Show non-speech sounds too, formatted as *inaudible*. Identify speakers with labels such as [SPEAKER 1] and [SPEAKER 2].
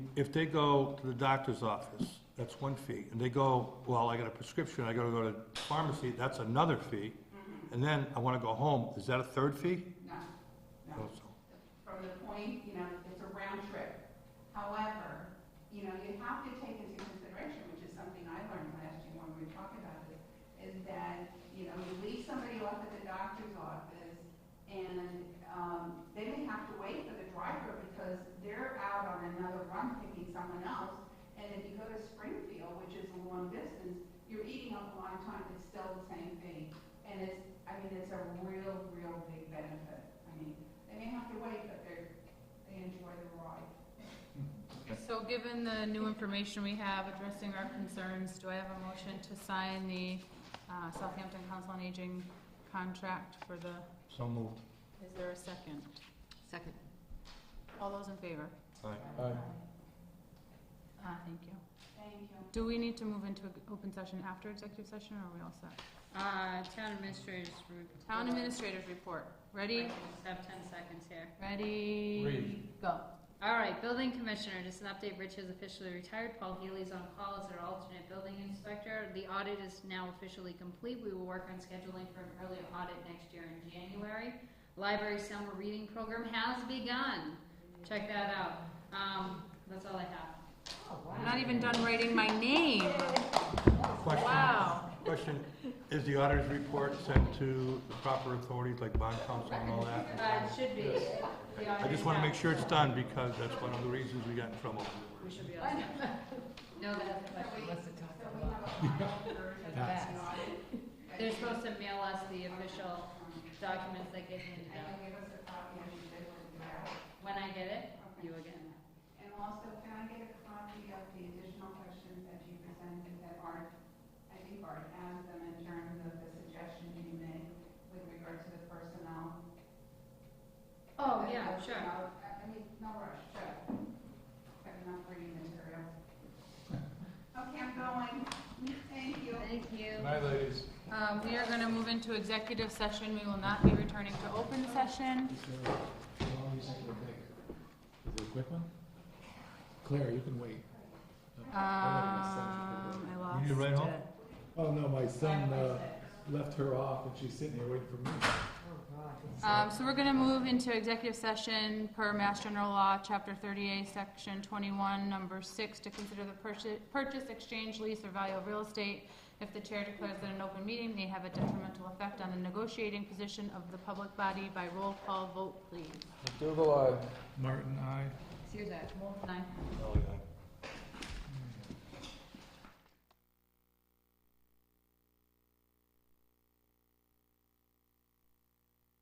[SPEAKER 1] if they go to the doctor's office, that's one fee, and they go, well, I got a prescription, I gotta go to pharmacy, that's another fee,
[SPEAKER 2] 嗯
[SPEAKER 1] and then I wanna go home, is that a third fee?
[SPEAKER 2] No, no.
[SPEAKER 1] Also.
[SPEAKER 2] From the point, you know, it's a round trip. However, you know, you have to take into consideration, which is something I learned last year when we were talking about this, is that, you know, you leave somebody off at the doctor's office and, um, they may have to wait for the driver because they're out on another run picking someone else. And if you go to Springfield, which is a long distance, you're eating up a lot of time, it's still the same thing. And it's, I mean, it's a real, real big benefit. I mean, they may have to wait, but they're, they enjoy the ride.
[SPEAKER 3] So given the new information we have addressing our concerns, do I have a motion to sign the uh, Southampton Council on Aging contract for the,
[SPEAKER 1] So moved.
[SPEAKER 3] is there a second?
[SPEAKER 4] Second.
[SPEAKER 3] All those in favor?
[SPEAKER 1] Aye.
[SPEAKER 3] Ah, thank you.
[SPEAKER 2] Thank you.
[SPEAKER 3] Do we need to move into open session after executive session, or are we all set?
[SPEAKER 4] Uh, town administrators report.
[SPEAKER 3] Town administrators report. Ready?
[SPEAKER 4] I Have ten seconds here.
[SPEAKER 3] Ready? Go.
[SPEAKER 4] All right, building commissioner, just an update, Rich has officially retired, Paul Healy's on call as our alternate building inspector. The audit is now officially complete, we will work on scheduling for an early audit next year in January. Library summer reading program has begun, check that out. Um, that's all I have.
[SPEAKER 3] I'm not even done writing my name.
[SPEAKER 1] Question,
[SPEAKER 3] Wow.
[SPEAKER 1] question, is the auditor's report sent to the proper authorities like bond council and all that?
[SPEAKER 4] Uh, it should be. The
[SPEAKER 1] I
[SPEAKER 4] audit
[SPEAKER 1] just
[SPEAKER 4] is
[SPEAKER 1] wanna
[SPEAKER 4] out.
[SPEAKER 1] make sure it's done, because that's one of the reasons we got in trouble.
[SPEAKER 4] We should be all set. *laughs* No, that's the question.
[SPEAKER 2] So we have a final version of the audit.
[SPEAKER 4] They're supposed to mail us the official documents that get handed
[SPEAKER 2] And
[SPEAKER 4] out.
[SPEAKER 2] you'll give us a copy and we will do that.
[SPEAKER 4] When I get it, you will get it.
[SPEAKER 2] And also, can I get a copy of the additional questions that you presented that Art, I think Art asked them in terms of the suggestion you made with regard to the personnel? That-
[SPEAKER 4] Oh, yeah,
[SPEAKER 2] that's
[SPEAKER 4] sure.
[SPEAKER 2] about- I I mean, no rush, sure. Got enough reading material. Okay, I'm going. Thank you.
[SPEAKER 4] Thank you.
[SPEAKER 3] Um, We are going to move into executive session. We will not be returning to open session.
[SPEAKER 5] Is it a quick one? Claire, you can wait.
[SPEAKER 3] Um, I lost
[SPEAKER 1] You need to write home?
[SPEAKER 3] it.
[SPEAKER 5] Oh, no, my son, uh, left her off and she's sitting here waiting for me.
[SPEAKER 3] Um, so we're gonna move into executive session per Mass General Law, Chapter thirty-eight, Section twenty-one, Number six, to consider the purchase, purchase, exchange, lease, or value of real estate. If the chair declares that an open meeting may have a detrimental effect on the negotiating position of the public body by roll call vote, please.
[SPEAKER 5] McDougal, aye. Martin, aye.
[SPEAKER 4] Here's that.
[SPEAKER 3] Wolf, nine.
[SPEAKER 1] Elliot,